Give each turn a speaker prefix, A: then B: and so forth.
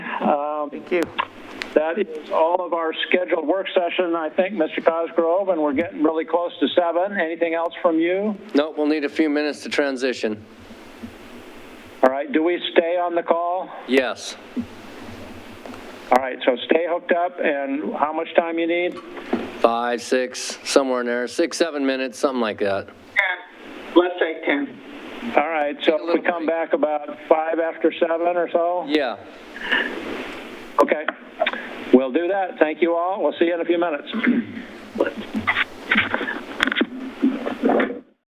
A: Thank you. Um, That is all of our scheduled work session, I think, Mr. Cosgrove, and we're getting really close to seven. Anything else from you?
B: Nope, we'll need a few minutes to transition.
A: All right, do we stay on the call?
B: Yes.
A: All right, so stay hooked up, and how much time you need?
B: Five, six, somewhere in there, six, seven minutes, something like that.
C: 10, let's say 10.
A: All right, so if we come back about five after seven or so?
B: Yeah.
A: Okay, we'll do that. Thank you all. We'll see you in a few minutes.